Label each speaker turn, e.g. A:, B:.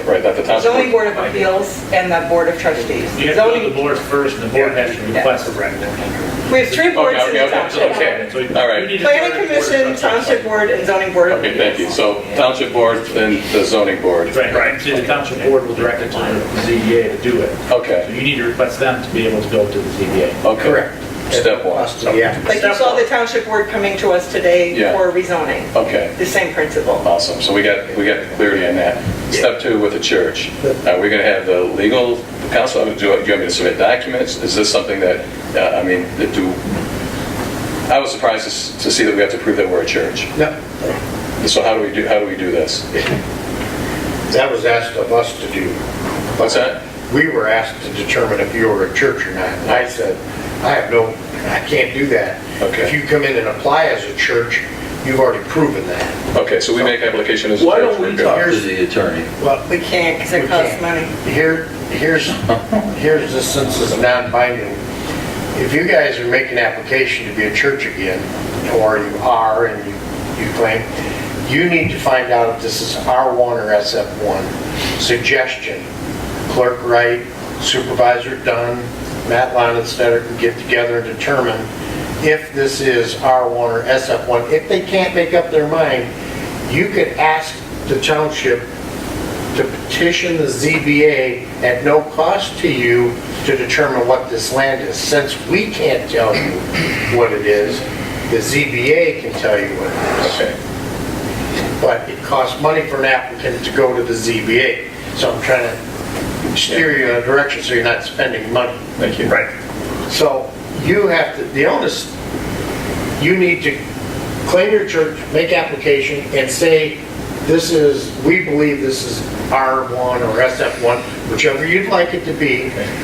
A: Right, that the township.
B: zoning board of appeals and the board of trustees.
C: You have to go to the
B: Zoning,
C: board first, and the board has to request a record.
B: we have three boards
A: Okay, okay,
B: in the
A: okay,
B: township.
C: So you-
A: okay, all
C: you
A: right.
C: need to go to the
B: Planning
C: board of
B: commission,
C: trustees.
B: township board, and zoning board of
A: Okay, thank you.
B: appeals.
A: So township board and the zoning board.
C: Right, right, so the township board will direct it to the ZBA to do it. So
A: Okay,
C: you need to request them to be able to go to the ZBA.
A: okay. Step one.
D: Us to the applicant.
B: Like you saw the township board coming to us today
A: Yeah.
B: for rezoning,
A: Okay,
B: the same principle.
A: awesome. So we got, we got clarity on that. Step two with the church. Are we going to have the legal counsel? Do you do you want me to submit documents? Is this something that, uh, I mean, that do, I was surprised to s- to see that we have to prove that we're a church.
D: No,
A: So how do we do, how do we do this?
D: that was asked of us to do.
A: What's that?
D: We were asked to determine if you were a church or not. And I said, I have no, I can't do that.
A: Okay.
D: If you come in and apply as a church, you've already proven that.
A: Okay, so we make application as a
E: Why
A: church.
E: don't we
A: we're good.
E: talk to
D: Here's-
E: the attorney?
D: Well,
B: We can't because it
D: We
B: costs
D: can't.
B: money.
D: Here, here's, here's the sense is non-binding. If you guys are making application to be a church again, or you are and you you claim, you need to find out if this is R1 or SF1. Suggestion, Clerk Wright, Supervisor Dunn, Matt Lonestetter can get together and determine if this is R1 or SF1. If they can't make up their mind, you could ask the township to petition the ZBA at no cost to you to determine what this land is. Since we can't tell you what it is, the ZBA can tell you what it is.
A: Okay.
D: But it costs money for an applicant to go to the ZBA. So I'm trying to steer you in a direction so you're not spending money.
A: Thank you.
C: Right.
D: So you have to, the onus, you need to claim your church, make application, and say, this is, we believe this is R1 or SF1, whichever you'd like it to be,